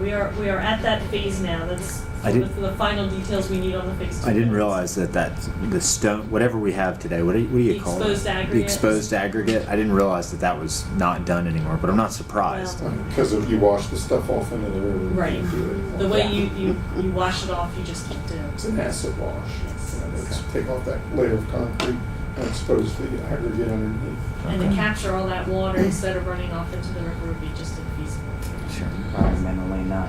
we are, we are at that phase now, that's I the didn't- the final details we need on the phase two. I didn't plans. realize that that the stone, whatever we have today, what do you, what do you The call exposed it? aggregate. The exposed aggregate. I didn't realize that that was not done anymore, but I'm not surprised. Well, Because if you wash the stuff off into the river, you Right. can't do it anymore. The way you, you, you wash it off, you just keep doing. It's an acid wash. Yes. You know, they just take off that layer of concrete and expose the aggregate underneath. And to Okay. capture all that water instead of running off into the river would be just infeasible. Sure. environmentally not,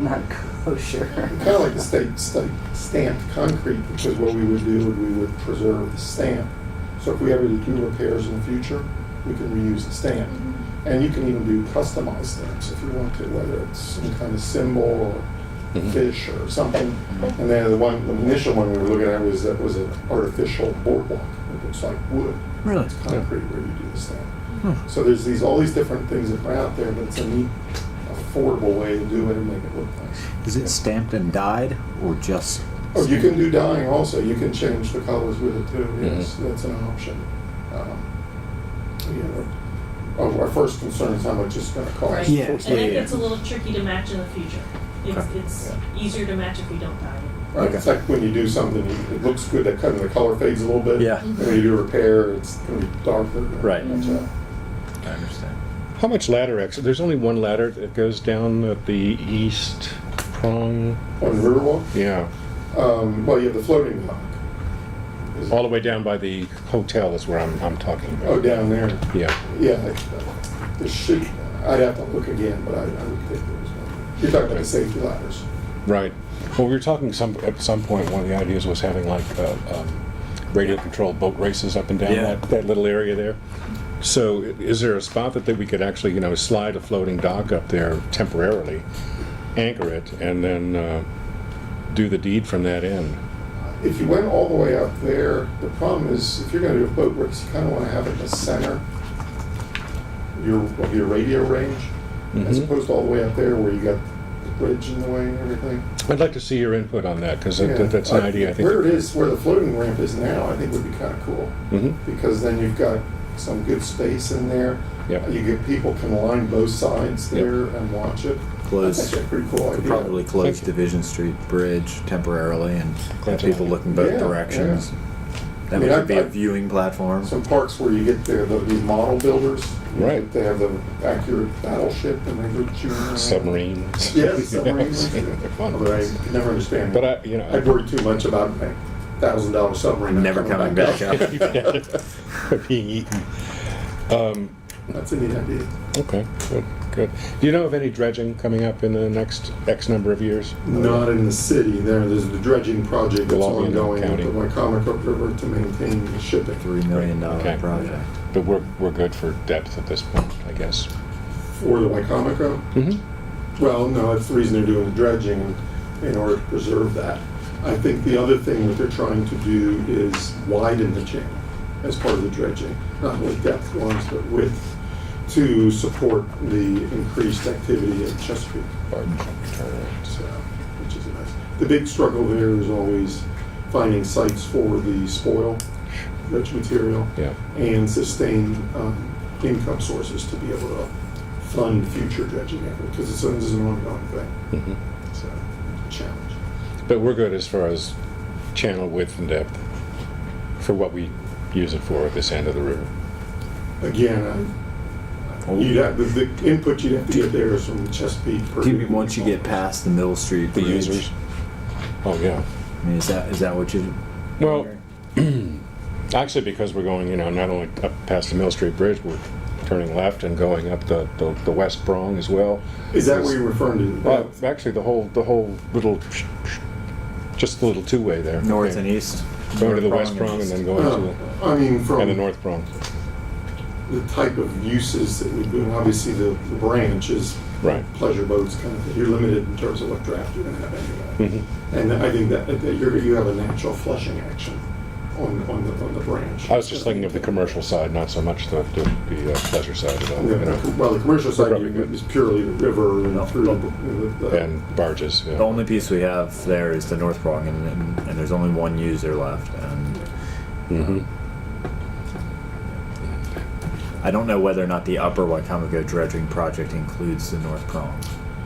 not Kind of kosher. like the state, state stamped concrete, because what we would do, would we would preserve the stamp. So if we ever do repairs in the future, we can reuse the stamp. And you can even do customized stamps if you want to, whether it's some kind of symbol or fish or something. And then the one, the initial one we were looking at was, that was an artificial boardwalk, it looks like wood. Really? It's concrete where you do the stamp. Hmm. So there's these, all these different things that are out there, but it's a neat, affordable way to do it and make it look nice. Is it stamped and dyed or just? Oh, you can do Mm-hmm. dyeing also, you can change the colors with it too, yes, that's an option. Um, yeah, Oh, our first concern is how much it's gonna Right. cost. Yeah, And yeah, that yeah. gets a little tricky to match in the future. It's, Okay. it's easier to match if we don't dye it. Right, it's Okay. like when you do something, you- it looks good, that kind of the color fades a little bit. Yeah. Mm-hmm. And when you do a repair, it's gonna be darker. Right. That's all. I understand. How much ladder exit? There's only one ladder that goes down at the east prong. On the Riverwalk, Yeah, um, well, you have the floating dock. Is- all the way down by the hotel is where I'm, I'm talking about. Oh, down there, Yeah. yeah, I- there should, I'd have to look again, but I, I would think there was one. You're talking about the safety ladders. Right. Well, we were talking some at some point. One of the ideas was having like uh, um, radio-controlled boat races up and down Yeah. that, that little area there. So, i- is there a spot that, that we could actually, you know, slide a floating dock up there temporarily, anchor it, and then uh, do the deed from that end? If you went all the way up there, the problem is, if you're gonna do a boat race, you kinda wanna have it in the center, of your, of your radio range, as Mhm. opposed to all the way up there where you got the bridge in the way and everything. I'd like to see your input on that because Yeah. that's an idea. I think. Where it is, where the floating ramp is now, I think would be kinda cool, Mhm. because then you've got some good space in there. Yep. You get, people can line both sides Yep. there and watch it. Close. That's actually a pretty cool Could idea. probably close Thank you. Division Street Bridge temporarily and have Gotcha. people looking both Yeah, directions. That I mean, would I- be a I- viewing platform. some parks where you get the, the, these model builders. you Right. get- They have the accurate battleship and they root you around. Submarines. Yes, submarines. They're fun. Although I could never understand. But I, you know. I- I'd worry too much about a thousand dollar submarine. Never coming back up. Being eaten. Um, That's a neat idea. okay, good, good. Do you know of any dredging coming up in the next X number of years? Not in the city, there, there's the dredging project that's Belonging in the ongoing up county. the Wycomico River to maintain the shipping. Three million dollar Okay. project. But we're, we're good for depth at this point, I guess. For the Wycomico? Mm-hmm. Well, no, that's the reason they're doing the dredging, in order to preserve that. I think the other thing that they're trying to do is widen the channel as part of the dredging, not only depth ones, but width, to support the increased activity at Chesapeake. So, which is nice. The big struggle there is always finding sites for the spoil, rich material, Yeah. and sustain um, income sources to be able to fund future dredging effort, because it's, this is an ongoing thing, Mhm. so, challenge. But we're good as far as channel width and depth for what we use it for at this end of the river. Again, Oh. I- you'd have, the, the input you'd have to get there is from the Chesapeake. Do you mean once you get past the Mill Street The Bridge? users? Oh, yeah. I mean, is that is that what you? Well, actually, because we're going, you know, not only up past the Mill Street Bridge, we're turning left and going up the, the, the West Prong as well. Is that what you're referring to? Well, actually, the whole, the whole little, sh- sh- just the little two-way there. north and east. Going to the North West Prong and then going No, to Uh, I mean, the, from. and the North Prong. the type of uses that we do, and obviously the, the branch is Right. pleasure boats kind of, you're limited in terms of what draft you're gonna have anyway. Mhm. And I think that, that you're, you have a natural flushing action on, on the, on the branch. I was just thinking of the commercial side, not so much the, the, the uh, pleasure side at all, Yeah, the you co- know, Well, the commercial side probably good. is purely the river No. and through the- the- the, and barges, The yeah. only piece we have there is the North Prong, and, and, and there's only one user left. And Mhm. I don't know whether or not the Upper Wycomico dredging project includes the North Prong.